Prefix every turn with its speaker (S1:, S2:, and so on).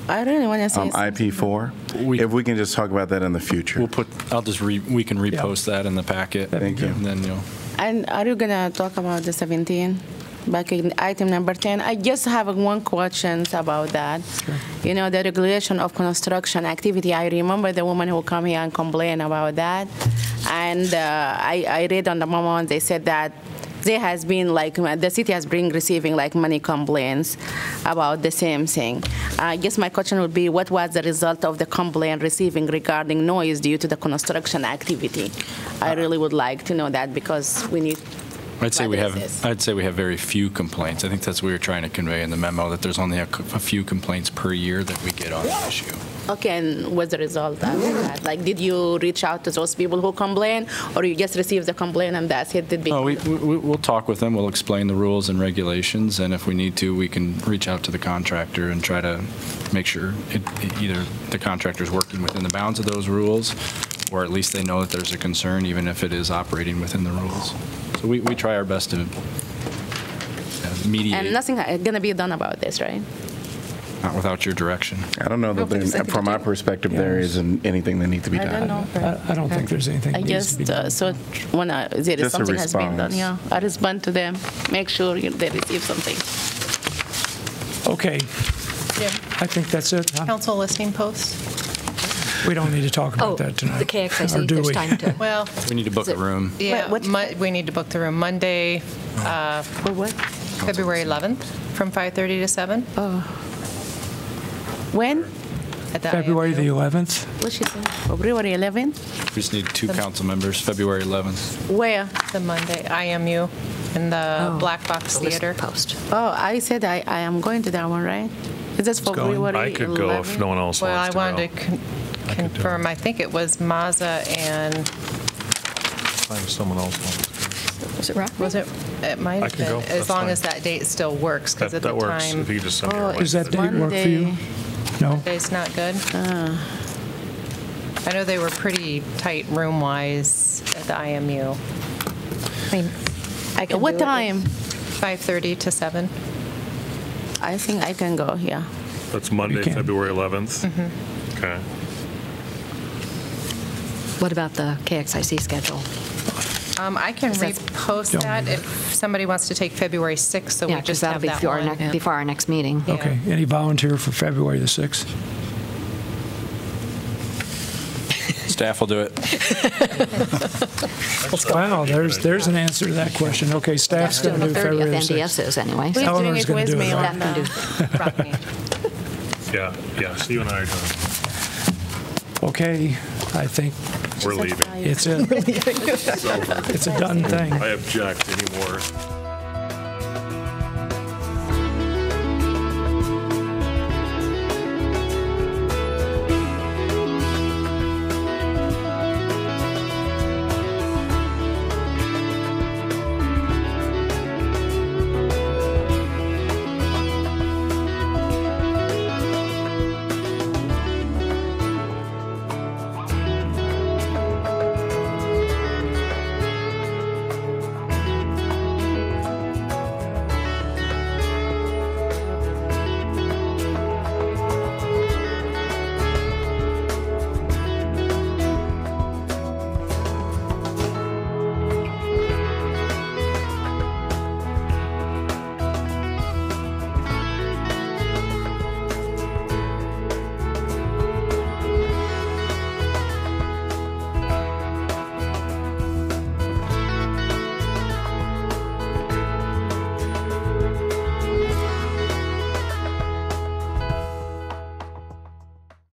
S1: I don't want to say.
S2: Um, IP4?
S3: We-
S2: If we can just talk about that in the future.
S3: We'll put, I'll just re, we can repost that in the packet.
S2: Thank you.
S3: And then you'll,
S1: And are you gonna talk about the 17, back in item number 10? I just have one question about that. You know, the regulation of construction activity, I remember the woman who come here and complain about that. And uh, I, I read on the moment, they said that there has been like, the city has been receiving like many complaints about the same thing. I guess my question would be, what was the result of the complaint receiving regarding noise due to the construction activity? I really would like to know that because we need,
S3: I'd say we
S1: Whether it's this.
S3: have, I'd say we have very few complaints. I think that's what we were trying to convey in the memo, that there's only a c- a few complaints per year that we get on the issue.
S1: okay, and what's the result of that? Like, did you reach out to those people who complain or you just received the complaint and that's it? Did be-
S3: No, we, we, we'll talk with them, we'll explain the rules and regulations, and if we need to, we can reach out to the contractor and try to make sure it, it- either the contractor's working within the bounds of those rules, or at least they know that there's a concern, even if it is operating within the rules. So we, we try our best to uh,
S1: And
S3: mediate,
S1: nothing is gonna be done about this, right?
S3: not without your direction.
S2: I don't know that,
S1: Hopefully
S2: there-
S1: something
S2: from
S1: to
S2: my
S1: do.
S2: perspective, there isn't anything that needs to be
S1: I
S2: done.
S1: don't know.
S4: I I don't think there's anything
S1: I
S4: that needs to be
S1: just, uh,
S4: done.
S1: so when I, there
S2: Just
S1: is
S2: a
S1: something has been done,
S2: response.
S1: yeah, I respond to them, make sure you- they receive something.
S5: uh,
S4: Okay,
S6: Yeah,
S4: I think that's it. huh?
S6: council listing posts.
S4: We don't need to talk
S5: Oh,
S4: about that tonight.
S5: okay, actually,
S4: Or
S5: so
S4: do
S5: there's
S4: we?
S5: time to,
S6: Well,
S3: We need to book a room.
S6: yeah,
S1: what-
S6: Mon- we need to book the room Monday,
S1: For what?
S6: February 11th, from 5:30 to 7
S1: When?
S6: at the
S4: February the
S6: IMU.
S4: 11th?
S1: What she said? February 11?
S3: We just need two council members, February 11th.
S1: Where?
S6: The Monday, IMU, in the
S5: Oh.
S6: Black Box
S5: list
S6: Theater.
S5: post.
S1: Oh, I said I, I am going to that one, right? Is this for
S4: going.
S1: February
S7: I could go if
S1: 11?
S7: no one else
S6: Well, I
S7: wants to go.
S6: wanted to con- confirm, I think it was Mazza and,
S7: Find someone else wants to
S5: Was Oh, it Rockland?
S6: was it, it might
S7: I
S6: have
S7: can
S6: been,
S7: go,
S6: as
S7: that's
S6: long
S7: fine.
S6: as that date still works,
S7: go.
S6: because
S7: That
S6: at the
S7: that works, if
S6: time,
S7: you could just send me
S1: Oh,
S7: your
S1: it's
S4: Does that
S7: link.
S4: date work for you?
S1: Monday.
S4: No?
S6: it's not good. I know they were pretty tight room-wise at the IMU,
S5: I mean, I can
S1: What
S5: do it.
S1: time?
S6: 5:30 to 7.
S1: I think I can go, yeah.
S7: That's Monday,
S4: can.
S7: February 11th?
S6: Mm-hmm.
S7: Okay.
S5: What about the KXIC schedule?
S6: Um, I can
S5: that's-
S6: repost
S4: Don't
S6: that
S4: worry
S6: if somebody wants to take February 6th, so
S5: Yeah,
S6: we
S5: because
S6: just
S5: that'll
S6: have
S5: be
S6: that
S5: before our
S6: one.
S5: next, before our next meeting.
S6: Yeah.
S4: Okay, any volunteer for February the 6th?
S3: Staff will do it.
S4: Wow, there's, there's an answer to that question. Okay, staff's
S5: That's
S4: going to
S5: doing
S4: do
S5: the 30th,
S4: February the
S5: NDS
S4: 6th.
S5: is anyway.
S1: Please
S5: so-
S1: bring
S4: Eleanor's
S1: it
S4: gonna
S1: with
S4: do it,
S1: me
S4: right?
S1: on
S5: Staff can
S1: the-
S5: do
S6: Rockne.
S7: Yeah, yeah, so you and I are done.
S4: Okay, I think
S7: We're leaving.
S4: it's it. It's a done thing.
S7: I object anymore.